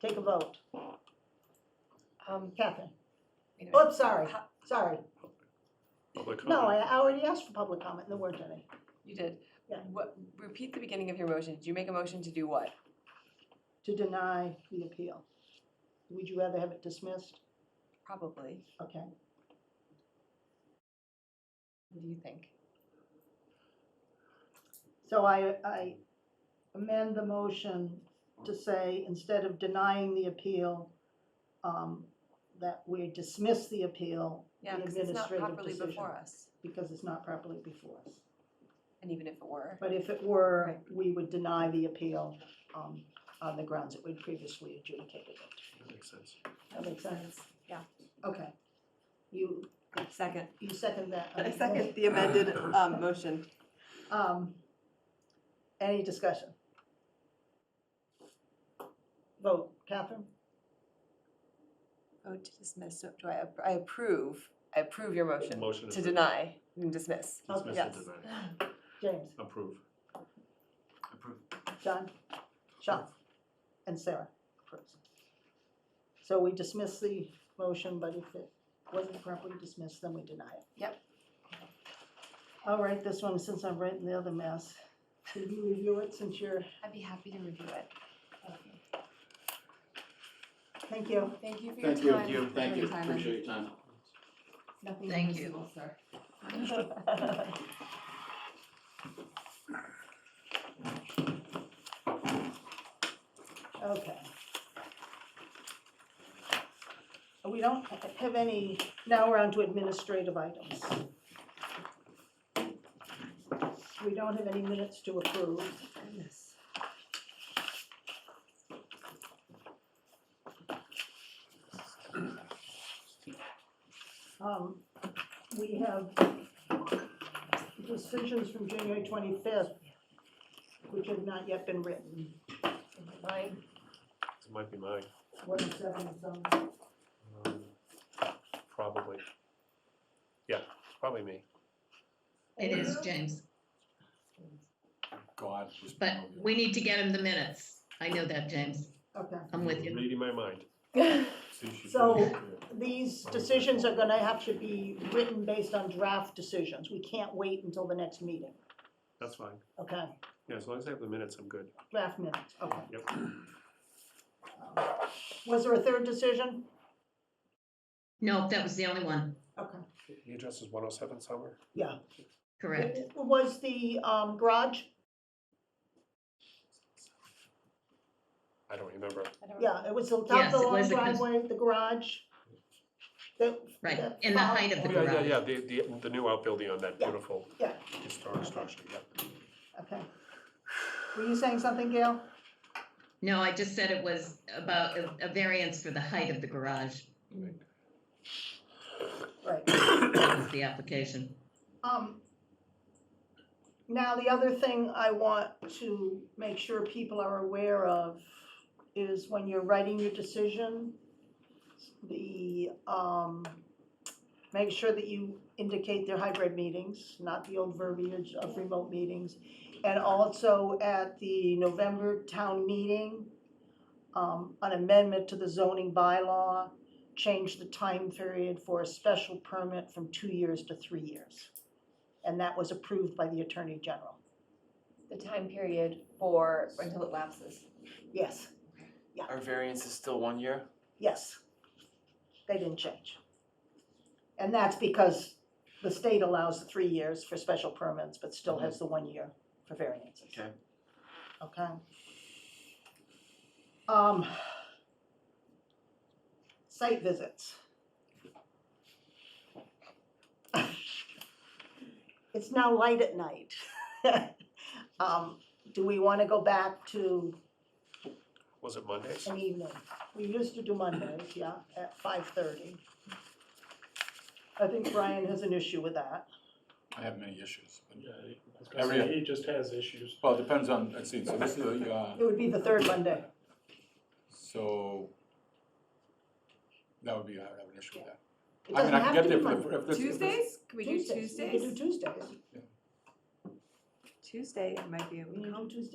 Take a vote. Um, Kathy? wait a minute. Oops, sorry, sorry. Public No, I comment. I already asked for public comment, there weren't any. you did. Yeah. What, repeat the beginning of your motion. Did you make a motion to do what? To deny the appeal. Would you rather have it dismissed? Probably. Okay. What do you think? So I, I amend the motion to say, instead of denying the appeal, um, that we dismiss the appeal, the Yeah, because it's not administrative properly decision, before us. because it's not properly before us. And even if it were, But if it were, Right. we would deny the appeal, um, on the grounds that we'd previously adjudicated it. That Makes sense. That makes sense? Yeah. Okay. You, Second. you second that? I second the amended um, motion. Um, any discussion? Vote, Catherine? vote to dismiss, So do I, ap- I approve, I approve your motion Motion is to re- deny and dismiss. Oh, Dismiss Yes. and deny. James, Approve. Approve. John, Sean, and Sarah approves. So we dismiss the motion, but if it wasn't properly dismissed, then we deny it. Yep. All right, this one, since I'm right in the other mess, did you review it since you're, I'd be happy to review it. thank you. Thank you for your time. Thank you, thank you, for thank you, your time. appreciate your time. Nothing Thank you. personal, sir. Okay. We don't have any, now we're on to administrative items. We don't have any minutes to approve. Goodness. Um, We have decisions from January 25th, which have not yet been written. Mine, This might be mine. What is that in some- Um, Probably. Yeah, probably me. It is James, God was. but promoted. we need to get him the minutes. I know that, James. Okay. I'm with you. Reading my mind. See, she So- finished it. These decisions are gonna have to be written based on draft decisions. We can't wait until the next meeting, That's fine. okay? Yeah, as long as I have the minutes, I'm good. Draft minutes, okay. Yep. Um, Was there a third decision? No, that was the only one. Okay. The address is one oh seven Summer. Yeah. Correct. Was the um, garage? I don't remember. I don't Yeah, it was the top of the Yes, it long was the cons- driveway, the garage. The- Right, the- in the height of the Oh, Yeah, yeah, garage. yeah, the, the, the new outbuilding on that Yeah, beautiful yeah. historic structure, yeah. Okay. Were you saying something, Gail? No, I just said it was about a- a variance for the height of the garage, Right. That was the application. Um, Now, the other thing I want to make sure people are aware of is when you're writing your decision, the, um, make sure that you indicate their hybrid meetings, not the old verbiage of remote meetings. And also at the November town meeting, um, an amendment to the zoning bylaw, change the time period for a special permit from two years to three years and that was approved by the Attorney General. The time period for, until it lapses. Yes, Our variance is still one year? yes. They didn't change. And that's because the state allows the three years for special permits, but still has the one year for variances. Okay. Okay. Um, site visits. It's now light at night. Um, do we wanna go back to Was it Mondays? an evening. We used to do Mondays, yeah, at five thirty. I think Brian has an issue with that. I have many issues. but- Yeah, he- I was gonna Every- say, he just has issues. Well, it depends on, let's see, so this is, a, uh, It would be the third Monday. so that would be, I would have an issue with that. It I mean, doesn't I can have get to there be for Monday. the, if this. if this- Tuesdays? Can we do We could Tuesdays? do Tuesdays. Tuesday, I might be able to We come. can do Tuesdays.